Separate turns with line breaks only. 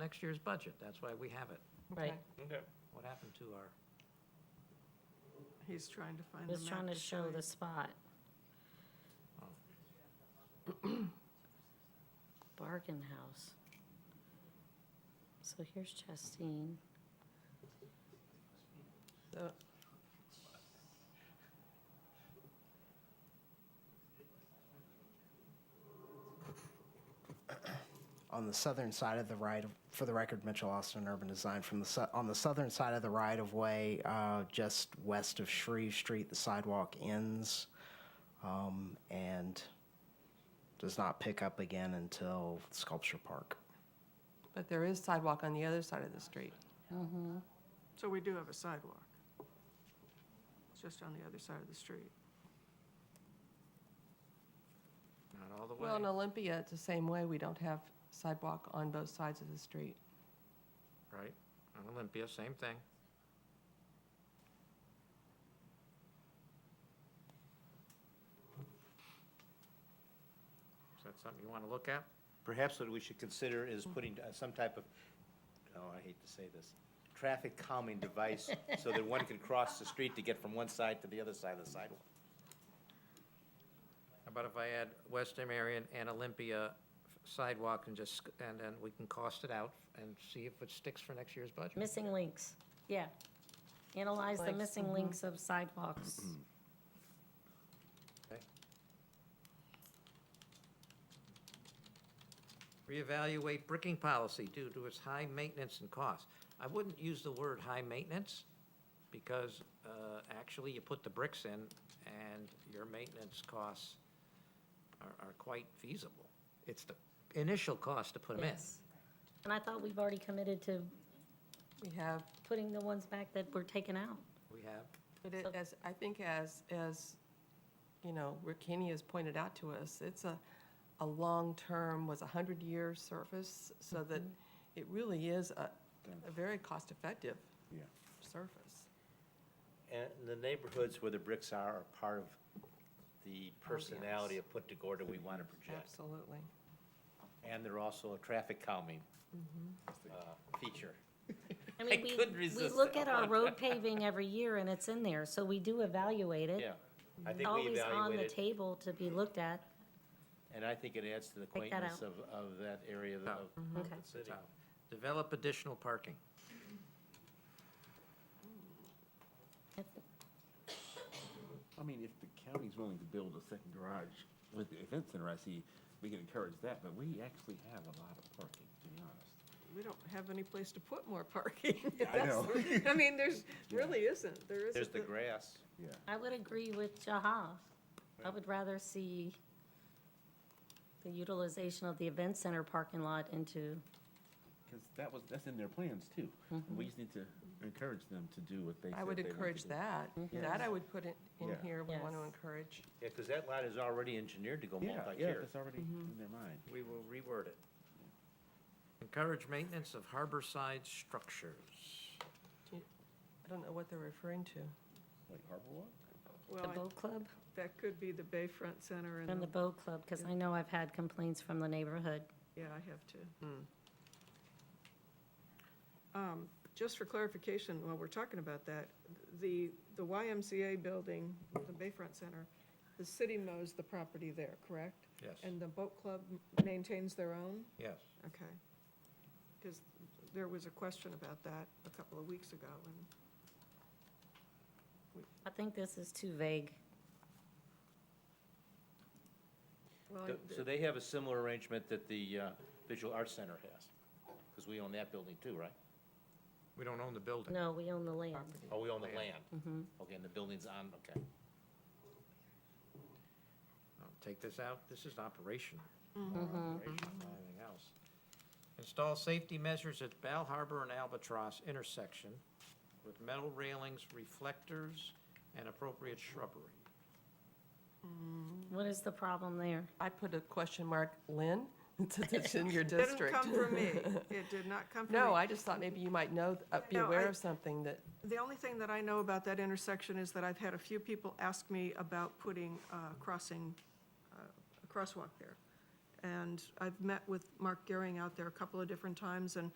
next year's budget. That's why we have it.
Right.
Okay.
Okay.
What happened to our,
He's trying to find the map.
Just trying to show
you.
the spot. Bargain House. So here's Chastain.
So-
on the southern side of the right, of- for the record, Mitchell Austin Urban Design, from the, sou- on the southern side of the right-of-way, uh, just west of Shreve Street, the sidewalk ends, um, and does not pick up again until Sculpture Park.
But there is sidewalk on the other side of the street.
So we do have a sidewalk. It's just on the other side of the street.
not all the way?
Well, in Olympia, it's the same way. We don't have sidewalk on both sides of the street.
Right? On Olympia, same thing. Is that something you want to look at?
Perhaps what we should consider is
Mm-hmm.
putting uh, some type of, oh, I hate to say this, traffic calming device so that one can cross the street to get from one side to the other side of the sidewalk.
How about if I add West Marion and Olympia sidewalk and just, and then we can cost it out and see if it sticks for next year's budget?
Missing links, yeah. Analyze the
Links,
mm-hmm.
missing links of sidewalks.
Mm-hmm.
Reevaluate bricking policy due to its high maintenance and cost. I wouldn't use the word high maintenance because uh, actually you put the bricks in and your maintenance costs are, are quite feasible. It's the initial cost to put them in.
Yes. And I thought we've already committed to
We have,
putting the ones back that were taken out.
We have,
but it,
So-
as, I think as, as, you know, Rick Haney has pointed out to us, it's a, a long-term, was a hundred-year surface, so that
Mm-hmm.
it really is a, a very cost-effective
Yeah.
surface.
And the neighborhoods where the bricks are are part of
Oh,
the personality of Punta Gorda we want to
Mm-hmm.
project.
Absolutely.
And they're also a traffic calming
Mm-hmm.
uh, feature.
I mean, we,
couldn't
we
resist
look
that
at our
one.
road paving every year and it's in there, so we do evaluate it.
Yeah. I think we
Always on the
evaluated,
table to be looked at.
and I think it adds to the
Take that Mm-hmm.
quaintness of, of that area of of Oh. the
Okay.
city.
so, develop additional parking.
I mean, if the county's willing to build a second garage with the event center, I see, we can encourage that, but we actually have a lot of parking, to be honest.
We don't have any place to put more parking.
Yeah, I
That's- I mean, there's, really isn't, there isn't.
There's the grass.
Yeah.
I would agree with Jaha. I would rather see the utilization of the event center parking lot into,
Because that was, that's in their plans too. We just need to encourage them to do what they said
Mm-hmm. I would
they wanted
encourage
to do.
that.
Mm-hmm.
That I would put in, in
Yeah.
here, we want to
Yes.
encourage.
Yeah, because that lot is already engineered to go
Yeah, yeah,
multi-tiered.
that's already
Mm-hmm.
in their mind.
We will reword it. Encourage maintenance of harborside structures.
I don't know what they're referring to.
Like Harbor Walk?
the
Well,
boat club,
I- that could be the Bayfront Center
from
and,
the
the-
boat club, because I know I've had complaints from the neighborhood.
yeah, I have to. Um, Just for clarification, while we're talking about that, the, the YMCA building, the Bayfront Center, the city mows the property there, correct?
Yes.
And the boat club maintains their own?
Yes.
Okay. Because there was a question about that a couple of weeks ago, and
I think this is too vague.
Well,
Th-
I-
So they have a similar arrangement that the uh, Visual Arts Center has, because we own that building too, right?
We don't own the building.
No, we own the land.
Oh, we own the land. Okay, and the building's on, okay.
I'll Take this out, this is operational. More operational than Anything else. Install safety measures at Bal Harbor and Albatross intersection with metal railings, reflectors, and appropriate shrubbery.
What is the problem there?
I put a question mark, Lynn, since it's in your
It didn't
district.
come from me. It did not come from me.
No, I just thought maybe you might know, uh, be
No,
aware
I-
of something that,
The only thing that I know about that intersection is that I've had a few people ask me about putting a crossing, uh, a crosswalk there. And I've met with Mark Gehring out there a couple of different times, and